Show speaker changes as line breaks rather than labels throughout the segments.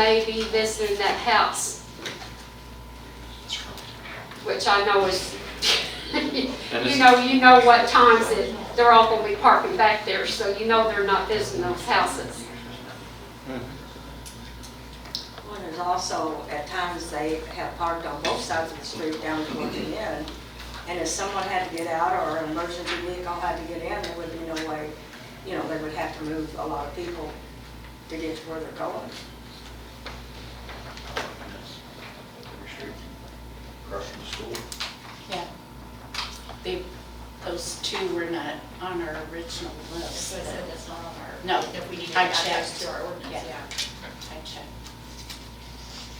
maybe visiting that house, which I know is,
And
you
it's-
know, you know what times that they're all gonna be parking back there, so you know they're not visiting those houses.
Well, there's also, at times, they have parked on both sides of the street down to the end. And if someone had to get out or an emergency vehicle had to get in, there would be no way, you know, they would have to move a lot of people to get to where they're going.
Across from the school.
Yeah. They, those two were not on our original list.
So I said that's not on our.
No,
If we need to
I
add
checked.
those to our ordinance,
Yeah.
yeah.
I checked.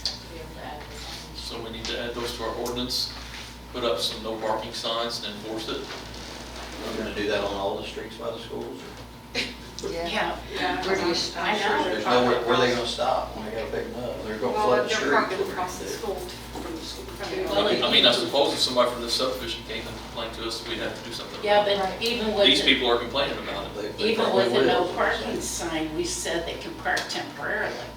to be able to add those
So we need to add those to our ordinance, put up some no parking signs and enforce it.
We're gonna do that on all the streets by the schools?
Yeah.
Where do you-
I know.
There's nowhere, where are they gonna stop when they gotta pick them up? They're gonna
Well,
flood the
if
streets.
they're parking
What are
across the
they
school, from the school, from the
Well,
I
it-
building.
mean, I suppose if somebody from this subdivision came and complained to us, we'd have to do something. about
Yeah,
it.
but even
These
with, the-
people are complaining about it.
gonna do? They- they
even
probably
with a no
will.
parking sign, we said they can park temporarily.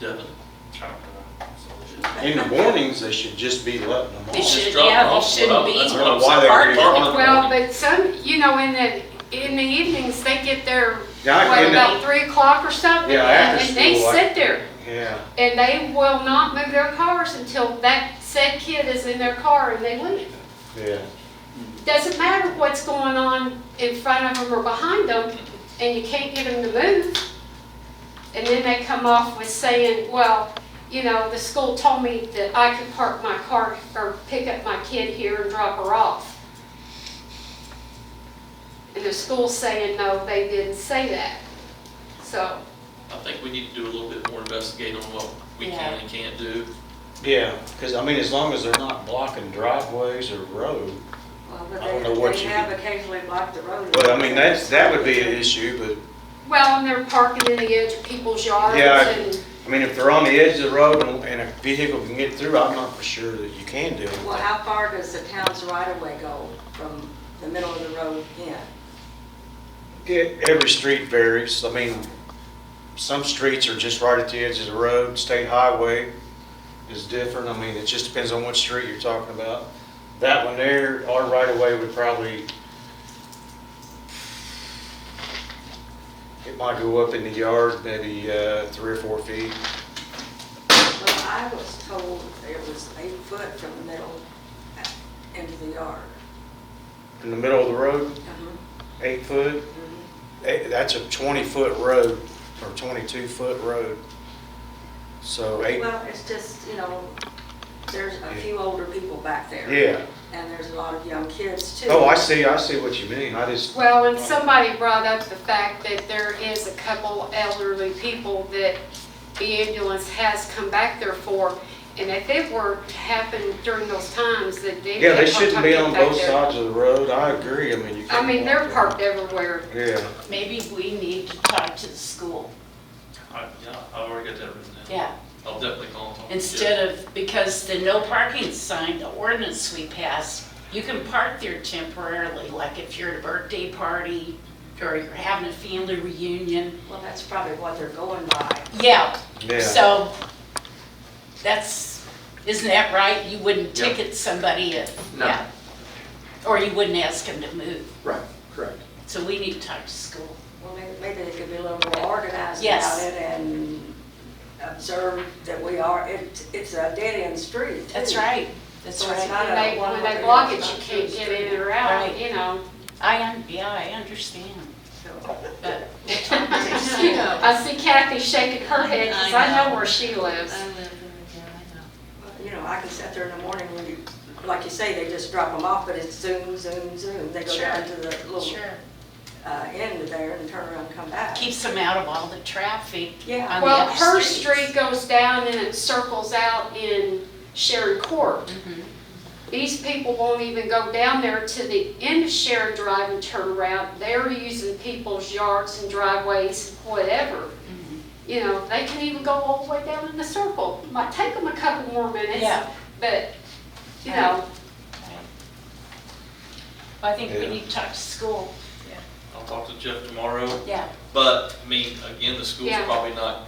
Devin,
In the mornings, they should just be letting them
They
off.
should,
drop
yeah,
them
they
off.
shouldn't
Well,
be.
that's
I don't know
Well,
why they were getting
Parking.
on.
Well, but some, you know, in the, in the evenings, they get there,
Yeah, I-
what,
and-
about three o'clock or something?
Yeah,
And
after
and they
school, I-
sit there,
Yeah,
and they will not move their cars until that said kid is in their car and they leave.
yeah.
Doesn't matter what's going on in front of them or behind them, and you can't get them to move. And then they come off with saying, well, you know, the school told me that I could park my car or pick up my kid here and drop her off. And the school's saying, no, they didn't say that. So,
I think we need to do a little bit more investigate on what we can
Yeah.
and can't do.
Yeah, because I mean, as long as they're not blocking driveways or road,
Well, but
I don't know what
they, they
you-
have occasionally blocked the road.
but I mean, that's, that would be an issue, but,
well, and they're parking in the edge of people's yards
Yeah, I-
and,
I mean, if they're on the edge of the road and- and a vehicle can get through, I'm not for sure that you can do
Well,
it.
how far does the town's right-of-way go from the middle of the road in?
Yeah, Every street varies, I mean, some streets are just right at the edge of the road, state highway is different, I mean, it just depends on what street you're talking about. That one there, our right of way would probably, it might go up in the yard, maybe uh, three or four feet.
Well, I was told it was eight foot from the middle into the yard.
In the middle of the road, eight foot, eh, that's a 20-foot road or 22-foot road. So eight,
Well, it's just, you know, there's a few older people back there.
yeah.
And there's a lot of young kids too.
Oh, I see, I see what you mean, I just,
Well, and somebody brought up the fact that there is a couple elderly people that the ambulance has come back there for, and if it were to happen during those times, that they.
yeah, they
they'd
shouldn't be on
park back
both
there.
sides of the road, I agree, I mean, you
I
can't.
mean, they're
walk
parked everywhere.
there. Yeah,
Maybe we need to talk to the school,
I, yeah, I've already got that written down.
yeah.
I'll definitely call and talk. to Jeff.
Instead of, because the no parking sign, the ordinance we passed, you can park there temporarily, like if you're at a birthday party or you're having a family reunion.
Well, that's probably what they're going by.
Yeah,
yeah.
so that's, isn't that right? You wouldn't
Yeah.
ticket somebody if,
No.
yeah. Or you wouldn't ask them to move.
Right, correct.
So we need to talk to school.
Well, maybe, maybe they could be a little more organized
Yes.
about it and observe that we are, it, it's a dead-end street too.
That's right, that's
So it's
right.
not-
When they, when they block it, you can't get in or out, you know.
I, un- yeah, I understand,
So-
but
I see Kathy shaking her head, because I know where she lives.
I live in, yeah, I know.
You know, I can sit there in the morning when you, like you say, they just drop them off, but it's zoom, zoom, zoom. They go down to the little
sure.
uh, end there and turn around and come back.
Keeps them out of all the traffic.
Yeah,
on the Mhm.
Well,
other
her
streets.
street goes down and it circles out in Sharon Court.
Mhm.
These people won't even go down there to the end of Sharon Drive and turn around. They're using people's yards and driveways, whatever.
Mhm.
You know, they can even go all the way down in the circle. Might take them a couple more minutes,
Yeah.
but, you know,
Well, I think we
Yeah.
need to talk to school.
I'll talk to Jeff tomorrow.
Yeah.
But, I mean, again, the school's
Yeah.
probably not